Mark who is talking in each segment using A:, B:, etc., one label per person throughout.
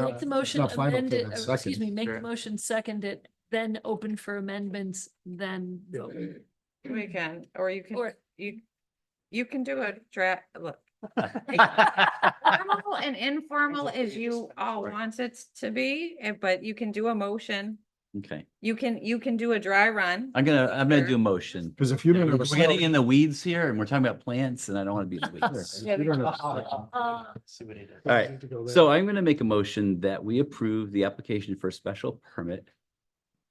A: Uh, not-
B: Make the motion
A: not final
B: amend
A: till
B: it,
A: it's
B: or excuse
A: second.
B: me, make the
C: Sure.
B: motion second it, then open for amendments, then vote.
C: We can, or you can,
B: Or,
C: you, you can do a draft, look. Formal and informal as you all
D: Right.
C: want it to be, and- but you can do a motion.
D: Okay,
C: You can, you can do a dry run.
D: I'm gonna, I'm gonna do
C: Sure.
D: a motion.
A: Because if you
D: We're
A: don't have a
D: we're getting in
A: second.
D: the weeds here and we're talking about plants and I don't want to be in the weeds.
A: if you don't have a second,
B: uh,
A: you
D: right,
A: need to go there.
D: So I'm gonna make a motion that we approve the application for a special permit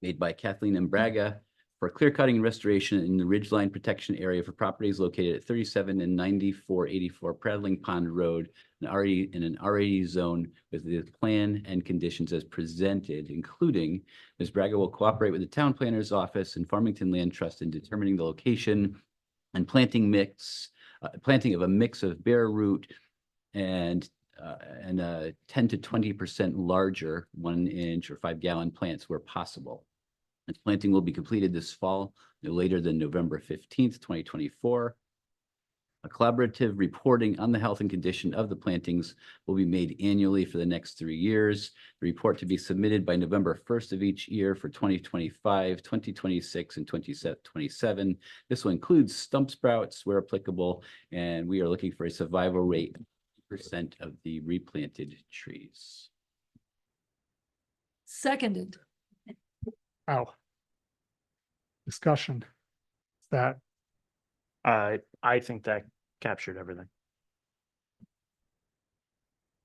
D: made by Kathleen and Braga for clear cutting and restoration in the ridgeline protection area for properties located at thirty-seven and ninety-four eighty-four Prattling Pond Road, an already, in an already zone with the plan and conditions as presented, including Ms. Braga will cooperate with the town planner's office and Farmington Land Trust in determining the location and planting mix, uh, planting of a mix of bare root and uh, and uh, ten to twenty percent larger one inch or five gallon plants where possible. And planting will be completed this fall, no later than November fifteenth, twenty twenty-four. A collaborative reporting on the health and condition of the plantings will be made annually for the next three years. The report to be submitted by November first of each year for 2025, 2026, and twenty twenty-seven. This will include stump sprouts where applicable, and we are looking for a survival rate percent of the replanted trees.
B: seconded.
E: Ow. Oh. Discussion. Is That,
F: Uh, I think that captured everything.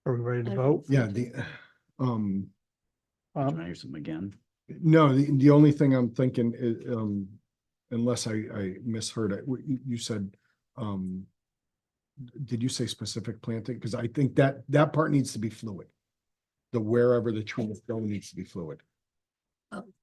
E: are we ready to
B: I-
E: vote?
A: Yeah, the, um,
D: Can I
E: Um,
D: hear something again?
A: no, the, the only thing I'm thinking is, um, unless I, I misheard it, what you, you said, um, did you say specific planting? Because I think that, that part needs to be fluid. The wherever the tree is going needs to be fluid.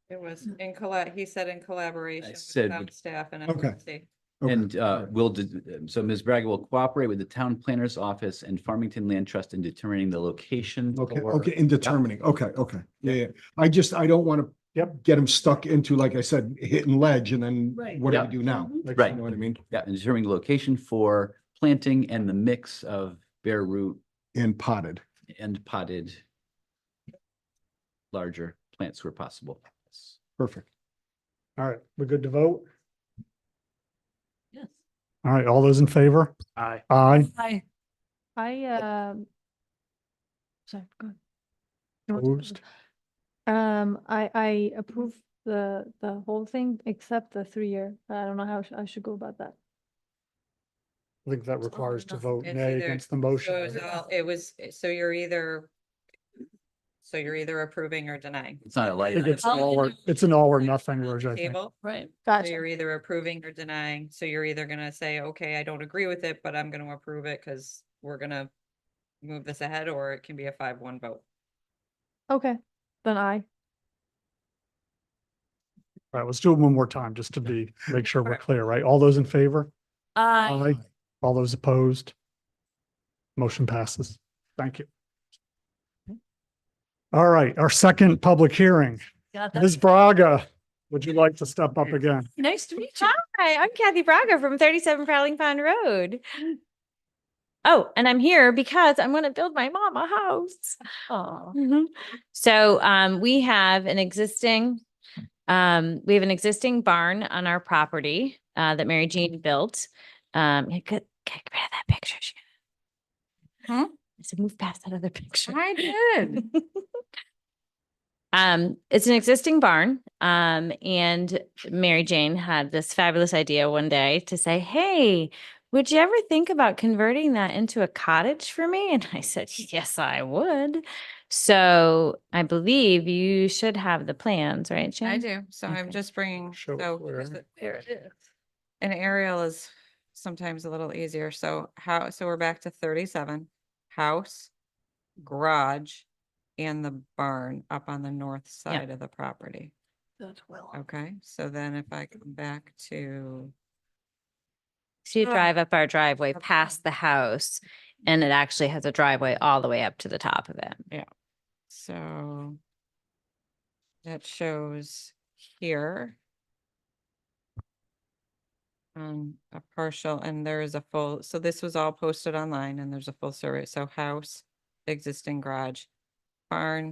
C: It was in collab, he said in collaboration with
D: said
C: some
D: with-
C: staff and.
A: Okay.
C: FMC.
A: Okay,
D: And
A: all
D: uh,
A: right.
D: will, de- so Ms. Braga will cooperate with the town planner's office and Farmington Land Trust in determining the location.
A: Okay,
D: for-
A: okay, in determining, okay, okay, yeah, yeah, I just, I don't wanna.
E: Yep.
A: Get them stuck into, like I said, hitting ledge and then
B: Right.
A: what do we
D: Yeah.
A: do now?
B: Mhm.
A: Like,
D: Right.
A: You know what I mean?
D: Yeah, and determining the location for planting and the mix of bare root
A: And potted,
D: and potted larger plants where possible.
A: perfect.
E: all right, we're good to vote?
B: Yes.
E: All right, all those in favor?
F: I,
E: Aye.
B: Aye.
G: I, um, sorry, go ahead. You want to-
E: Opposed?
G: Um, I, I approve the, the whole thing except the three-year. I don't know how I sh- I should go about that.
E: I think that
B: It's all or
E: requires to
B: nothing.
E: vote
C: It's
E: nay
C: either-
E: against the
C: So it was
E: motion.
C: all, it was, so you're either. So you're either approving or denying.
D: It's not a
E: I
D: light.
E: think it's
B: I'll
E: all or,
B: either-
E: it's an all or nothing,
C: On the
E: Raj, I think.
C: Table,
B: Right.
C: so
G: Gotcha.
C: you're either approving or denying, so you're either gonna say, okay, I don't agree with it, but I'm gonna approve it, cause we're gonna. Move this ahead, or it can be a five one vote.
G: Okay, then I.
E: All right, let's do it one more time, just to be, make sure we're clear, right? All those in favor?
B: Aye.
E: All those opposed? Motion passes. Thank you. All right, our second public hearing.
B: Got that.
E: Ms. Braga, would you like to step up again?
B: Nice to meet you.
H: Hi, I'm Kathy Braga from 37 Prowling Pond Road. Oh, and I'm here because I'm going to build my mom a house.
B: Aw.
H: Mhm. So um, we have an existing, um, we have an existing barn on our property uh, that Mary Jean built. Um, yeah, good- get rid of that picture. Shannon.
C: Huh?
H: I said, move past that other picture.
C: I did.
H: Um, it's an existing barn. Um, and Mary Jane had this fabulous idea one day to say, Hey, would you ever think about converting that into a cottage for me? And I said, Yes, I would. So I believe you should have the plans, right, Jane?
C: I do, so I'm
H: Okay.
C: just bringing,
E: Show
C: so.
E: it
C: here's
E: where.
C: the-
B: There it is.
C: An aerial is sometimes a little easier, so how, so we're back to thirty-seven, house, garage, and the barn up on the north side of the property,
B: That's well.
C: okay? So then if I come back to,
H: So you
C: Ah.
H: drive up our driveway
C: Up
H: past
C: top.
H: the house and it actually has a driveway all the way up to the top of it.
C: so that shows here um, a partial, and there is a full, so this was all posted online, and there's a full survey, so house, existing garage, barn